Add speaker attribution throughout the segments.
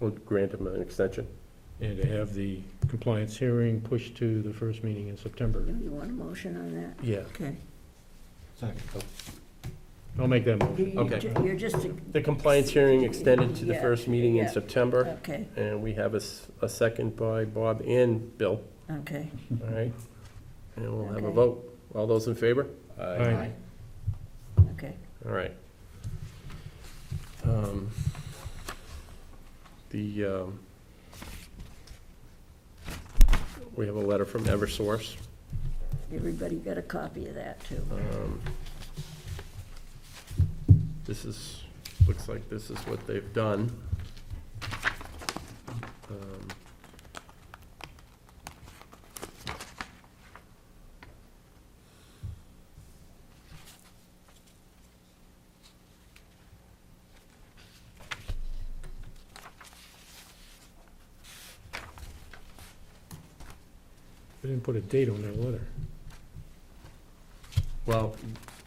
Speaker 1: We'll grant him an extension.
Speaker 2: uh, and to have the compliance hearing pushed to the first meeting in September.
Speaker 3: You want a motion on that?
Speaker 2: Yeah,
Speaker 3: Okay.
Speaker 2: I'll make that
Speaker 3: You-
Speaker 2: motion.
Speaker 3: you
Speaker 1: Okay.
Speaker 3: ju- You're just, a-
Speaker 1: The compliance hearing extended to the
Speaker 3: Yeah,
Speaker 1: first meeting in
Speaker 3: yeah.
Speaker 1: September,
Speaker 3: okay,
Speaker 1: and we have a, s- a second by Bob and Bill,
Speaker 3: okay.
Speaker 2: Mm-hmm.
Speaker 1: all right? And we'll have a
Speaker 3: Okay.
Speaker 1: vote. All those in favor?
Speaker 2: Aye.
Speaker 3: Okay.
Speaker 1: All right. Um, The, um, we have a letter from Eversource.
Speaker 3: Everybody got a copy of that, too.
Speaker 1: Um, This is, looks like this is what they've done. Um,
Speaker 2: They didn't put a date on that letter.
Speaker 1: Well,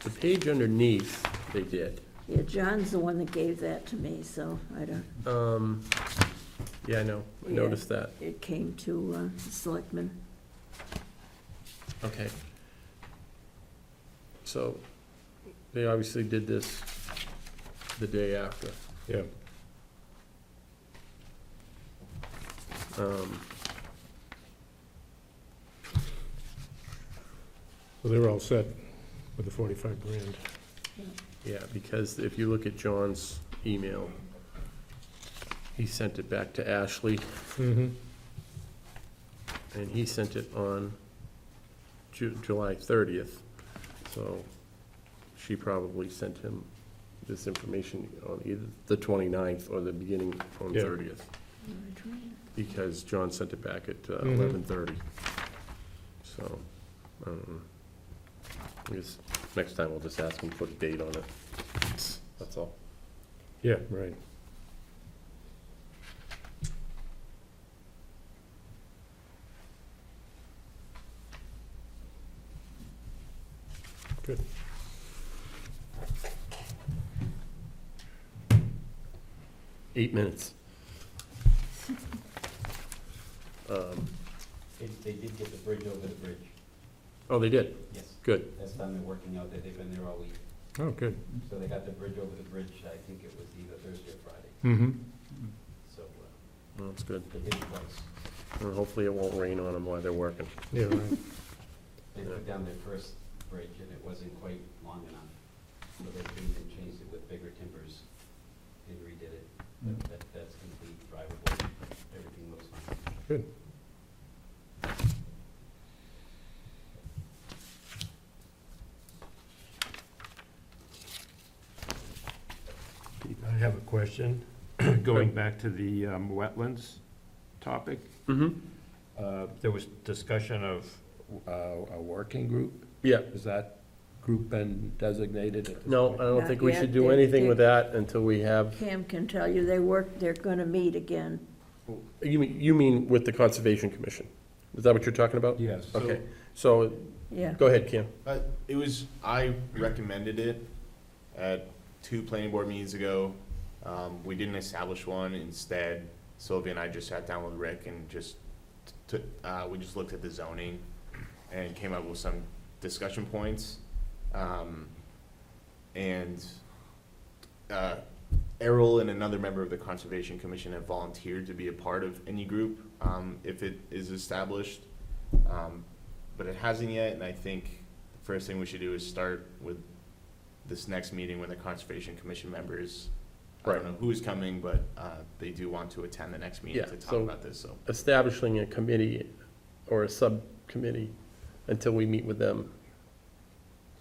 Speaker 1: the page underneath, they did.
Speaker 3: Yeah, John's the one that gave that to me, so I don't,
Speaker 1: Um, Yeah, I know, I
Speaker 3: Yeah.
Speaker 1: noticed that.
Speaker 3: it came to uh, Selectmen.
Speaker 1: Okay. So, they obviously did this the day after.
Speaker 2: Yeah.
Speaker 1: Um,
Speaker 2: So they were all set with the forty-five grand.
Speaker 1: Yeah, because if you look at John's email, he sent it back to Ashley,
Speaker 2: Mm-hmm.
Speaker 1: and he sent it on Ju- July thirtieth. So she probably sent him this information on either the 29th or the beginning on
Speaker 2: Yeah.
Speaker 1: thirtieth. because John sent it back at uh,
Speaker 2: Mhm.
Speaker 1: eleven thirty. So, um, I guess next time we'll just ask him to put a date on it. That's all.
Speaker 2: Yeah, right. Good.
Speaker 1: Eight minutes. Um,
Speaker 4: They, they did get the bridge over the bridge,
Speaker 1: Oh, they did,
Speaker 4: yes.
Speaker 1: good.
Speaker 4: That's done, they're working out there, they've been there all week.
Speaker 2: Oh, good.
Speaker 4: So they got the bridge over the bridge, I think it was either Thursday or Friday,
Speaker 2: Mm-hmm.
Speaker 4: so uh,
Speaker 1: Well, That's good.
Speaker 4: they did it twice.
Speaker 1: And Uh, hopefully it won't rain on them while they're working.
Speaker 2: Yeah, right.
Speaker 4: They put down their first bridge and it wasn't quite long enough, so they came and changed it with bigger timbers and redid it. But That, that's complete, drivable, everything looks fine.
Speaker 2: Good.
Speaker 5: I have a question, going back to the um, wetlands topic.
Speaker 1: Mm-hmm.
Speaker 5: uh, There was discussion of uh, a working group.
Speaker 1: Yeah,
Speaker 5: Has that group been designated at this
Speaker 1: no, I
Speaker 5: point?
Speaker 1: don't think we
Speaker 3: Not
Speaker 1: should
Speaker 3: yet.
Speaker 1: do
Speaker 3: They-
Speaker 1: anything with
Speaker 3: they-
Speaker 1: that until we have,
Speaker 3: Cam can tell you, they work, they're going to meet again.
Speaker 1: you mean, you mean with the Conservation Commission? Is that what you're talking about?
Speaker 5: Yes.
Speaker 1: Okay, so,
Speaker 3: Yeah,
Speaker 1: go ahead, Kim.
Speaker 6: Uh, it was, I recommended it at two planning board meetings ago. Um, we didn't establish one. Instead, Sylvia and I just sat down with Rick and just took, uh, we just looked at the zoning and came up with some discussion points. Um, and, uh, Errol and another member of the Conservation Commission have volunteered to be a part of any group, um, if it is established. Um, but it hasn't yet, and I think the first thing we should do is start with this next meeting with the Conservation Commission members. I
Speaker 1: Right.
Speaker 6: don't know who's coming, but, uh, they do want to attend the next meeting
Speaker 1: Yeah,
Speaker 6: to talk
Speaker 1: so-
Speaker 6: about this, so.
Speaker 1: establishing a committee or a subcommittee until we meet with them.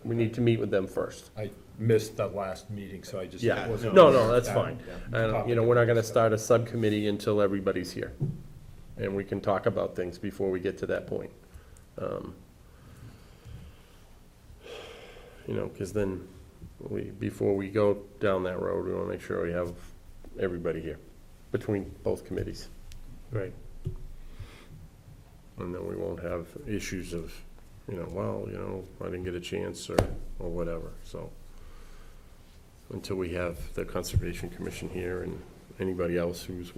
Speaker 1: We need to meet with them first.
Speaker 5: I missed the last meeting, so I just
Speaker 1: Yeah.
Speaker 5: wasn't.
Speaker 1: No,
Speaker 5: aware
Speaker 1: no,
Speaker 5: of
Speaker 1: that's
Speaker 5: that.
Speaker 1: fine.
Speaker 6: Yeah.
Speaker 1: And, you know, we're not gonna start a subcommittee until everybody's here. And we can talk about things before we get to that point. Um, You know, cause then we, before we go down that road, we wanna make sure we have everybody here between both committees.
Speaker 2: Right.
Speaker 1: And then we won't have issues of, you know, well, you know, I didn't get a chance or, or whatever, so. Until we have the Conservation Commission here and anybody else who's